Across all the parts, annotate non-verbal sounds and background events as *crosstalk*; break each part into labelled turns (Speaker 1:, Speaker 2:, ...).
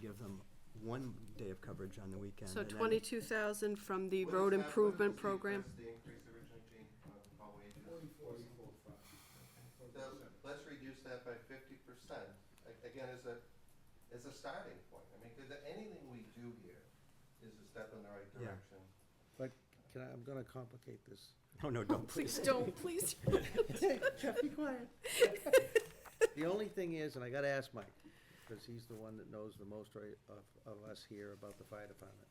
Speaker 1: them one day of coverage on the weekend.
Speaker 2: So
Speaker 1: and then-
Speaker 2: twenty-two thousand from the
Speaker 3: What
Speaker 2: road
Speaker 3: is that- what
Speaker 2: improvement
Speaker 3: was the- *laughs*
Speaker 2: program?
Speaker 3: what's the increase originally, Gene, uh, about wages? So, let's reduce that by fifty percent, again, as a, as a starting point, I mean, because anything we do here is a step in the right
Speaker 1: Yeah.
Speaker 3: direction.
Speaker 4: But can I, I'm gonna complicate this. *laughs*
Speaker 1: No, Oh, no, don't,
Speaker 2: Please
Speaker 1: please. *laughs*
Speaker 2: don't, please.
Speaker 4: Jeff, be quiet. *laughs* The only thing is, and I gotta ask Mike, because he's the one that knows the most right of, of us here about the fire department.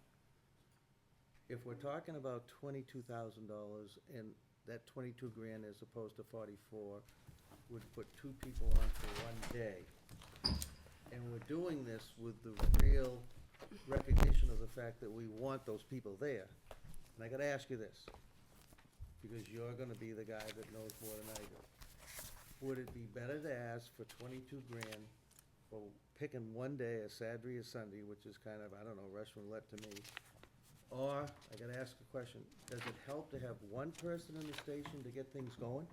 Speaker 4: If we're talking about twenty-two thousand dollars and that twenty-two grand as opposed to forty-four would put two people on for one day. And we're doing this with the real recognition of the fact that we want those people there. And I gotta ask you this, because you're gonna be the guy that knows more than I do. Would it be better to ask for twenty-two grand for picking one day, a Saturday or Sunday, which is kind of, I don't know, Russian roulette to me? Or, I gotta ask a question, does it help to have one person in the station to get things going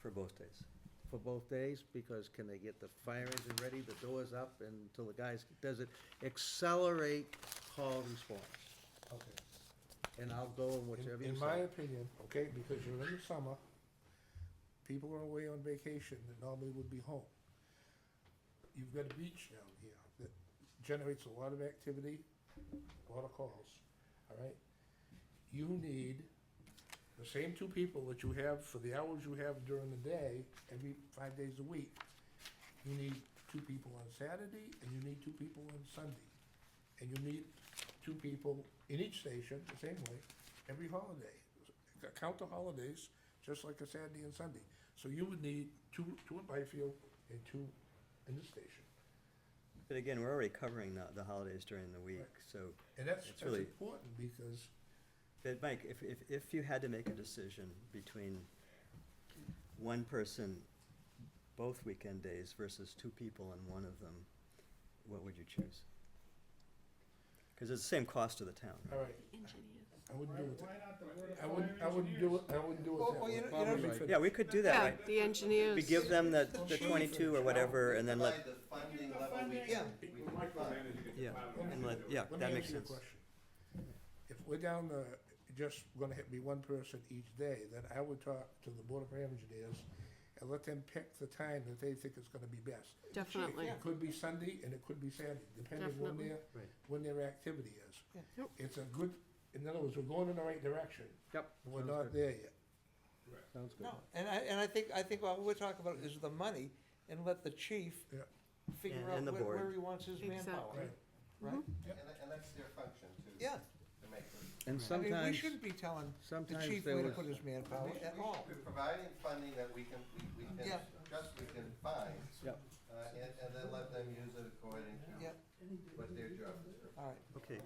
Speaker 1: For both days.
Speaker 4: for both days? Because can they get the fire engine ready, the doors up until the guys, does it accelerate call response?
Speaker 5: Okay.
Speaker 4: And I'll go in whichever
Speaker 5: In-
Speaker 4: you
Speaker 5: In my
Speaker 4: say.
Speaker 5: opinion, okay, because you're in the summer, people are away on vacation that normally would be home. You've got a beach down here that generates a lot of activity, a lot of calls, all right? You need the same two people that you have for the hours you have during the day, every five days a week. You need two people on Saturday, and you need two people on Sunday. And you need two people in each station, the same way, every holiday. C- Count the holidays, just like a Saturday and Sunday. So you would need two, two in Byfield and two in the station.
Speaker 1: But again, we're already covering the, the holidays during the week,
Speaker 5: Right.
Speaker 1: so.
Speaker 5: And that's,
Speaker 1: It's
Speaker 5: that's
Speaker 1: really-
Speaker 5: important because,
Speaker 1: But Mike, if, if, if you had to make a decision between one person both weekend days versus two people and one of them, what would you choose? Because it's the same cost to the town,
Speaker 5: all
Speaker 1: right?
Speaker 5: right,
Speaker 2: Engineers.
Speaker 5: I wouldn't do it that.
Speaker 6: Why not the word
Speaker 5: I
Speaker 6: of
Speaker 5: wouldn't, I
Speaker 6: fire
Speaker 5: wouldn't do
Speaker 6: engineers?
Speaker 5: it, I wouldn't do
Speaker 3: Well,
Speaker 5: it that
Speaker 3: well,
Speaker 5: way.
Speaker 3: you know- you
Speaker 4: know,
Speaker 5: Probably
Speaker 4: if
Speaker 5: right.
Speaker 1: Yeah, we could do that,
Speaker 2: Yeah,
Speaker 1: right?
Speaker 2: the engineers.
Speaker 1: We give them the, the twenty-two or whatever, and then
Speaker 3: Provide
Speaker 1: let,
Speaker 3: the funding
Speaker 6: Give the
Speaker 3: level we
Speaker 6: funding.
Speaker 3: can.
Speaker 6: Yeah.
Speaker 3: We can fund.
Speaker 1: yeah, and let, yeah,
Speaker 5: Let
Speaker 1: that
Speaker 5: me
Speaker 1: makes
Speaker 5: ask you a
Speaker 1: sense.
Speaker 5: question. If we're down to just gonna hit me one person each day, then I would talk to the Board of Engineers and let them pick the time that they think is gonna be best.
Speaker 2: Definitely.
Speaker 5: It could be Sunday and it could be Saturday, depending when
Speaker 2: Definitely.
Speaker 5: their,
Speaker 4: Right.
Speaker 5: when their activity is.
Speaker 2: Yep.
Speaker 5: It's a good, in other words, we're going in the right direction,
Speaker 4: Yep.
Speaker 5: but we're
Speaker 4: sounds
Speaker 5: not
Speaker 4: good.
Speaker 5: there yet.
Speaker 4: Sounds good.
Speaker 7: No, and I, and I think, I think what we're talking about is the money, and let the chief
Speaker 5: Yeah.
Speaker 1: And-
Speaker 7: figure
Speaker 1: and
Speaker 7: out
Speaker 1: the
Speaker 7: where, where
Speaker 1: board.
Speaker 7: he wants his
Speaker 2: Exactly.
Speaker 7: manpower,
Speaker 5: Right.
Speaker 7: right?
Speaker 3: And, tha- and that's their function too.
Speaker 7: Yeah,
Speaker 3: To make this.
Speaker 4: And
Speaker 7: I mean, we
Speaker 4: sometimes,
Speaker 7: shouldn't be telling the
Speaker 4: sometimes
Speaker 7: chief
Speaker 4: there
Speaker 7: where to
Speaker 4: was-
Speaker 7: put his manpower
Speaker 3: We should-
Speaker 7: Oh, at
Speaker 3: we
Speaker 7: all.
Speaker 3: should be Providing funding that we can, we, we can,
Speaker 7: Yeah.
Speaker 3: just we can find,
Speaker 4: Yep.
Speaker 3: uh, and, and then let them use it according to
Speaker 7: Yeah,
Speaker 3: what their job is.
Speaker 7: all right.
Speaker 1: Okay.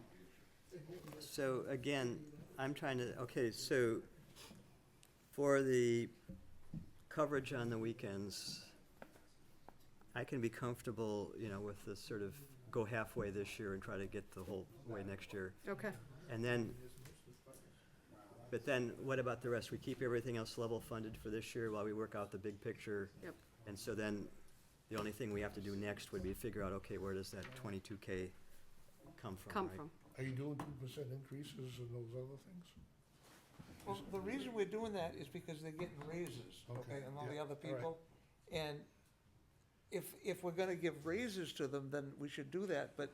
Speaker 1: So again, I'm trying to, okay, so for the coverage on the weekends, I can be comfortable, you know, with this sort of go halfway this year and try to get the whole way next year.
Speaker 2: Okay,
Speaker 1: And then, but then what about the rest? We keep everything else level funded for this year while we work out the big picture?
Speaker 2: Yep.
Speaker 1: And so then, the only thing we have to do next would be figure out, okay, where does that twenty-two K come from,
Speaker 2: come
Speaker 1: right?
Speaker 2: from.
Speaker 5: Are you doing two percent increases and those other things?
Speaker 7: Well, the reason we're doing that is because they're getting raises,
Speaker 5: Okay,
Speaker 7: okay, and all the
Speaker 5: yeah,
Speaker 7: other
Speaker 5: all right.
Speaker 7: people. And if, if we're gonna give raises to them, then we should do that, but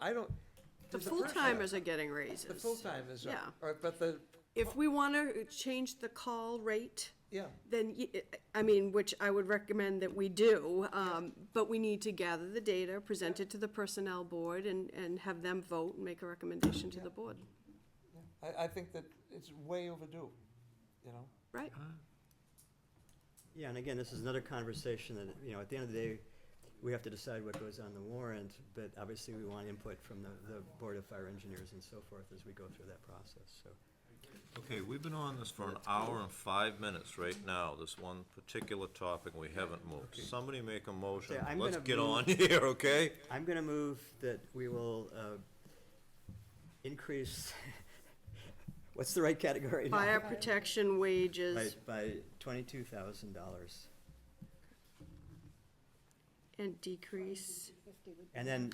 Speaker 7: I don't.
Speaker 2: The
Speaker 7: there's a
Speaker 2: full
Speaker 7: pressure.
Speaker 2: timers are getting raises.
Speaker 7: The full timers,
Speaker 2: Yeah.
Speaker 7: are- are- but the,
Speaker 2: If we want to change the call rate,
Speaker 7: yeah.
Speaker 2: then, y- I mean, which I would recommend that we do, um, but we need to gather the data, present it to the Personnel Board, and, and have them vote and make a recommendation to the board,
Speaker 7: Yeah, I, I think that it's way overdue, you know?
Speaker 2: right?
Speaker 1: Yeah, and again, this is another conversation that, you know, at the end of the day, we have to decide what goes on the warrant, but obviously we want input from the, the Board of Fire Engineers and so forth as we go through that process, so.
Speaker 8: Okay, we've been on this for an hour and five minutes right now, this one particular topic, we haven't moved. Somebody make a motion,
Speaker 1: Okay, I'm
Speaker 8: let's
Speaker 1: gonna
Speaker 8: get
Speaker 1: move-
Speaker 8: on *laughs* here, okay?
Speaker 1: I'm gonna move that we will, uh, increase, *laughs* what's the right category now?
Speaker 2: Fire protection
Speaker 1: By,
Speaker 2: wages
Speaker 1: by twenty-two thousand dollars.
Speaker 2: and decrease
Speaker 1: And then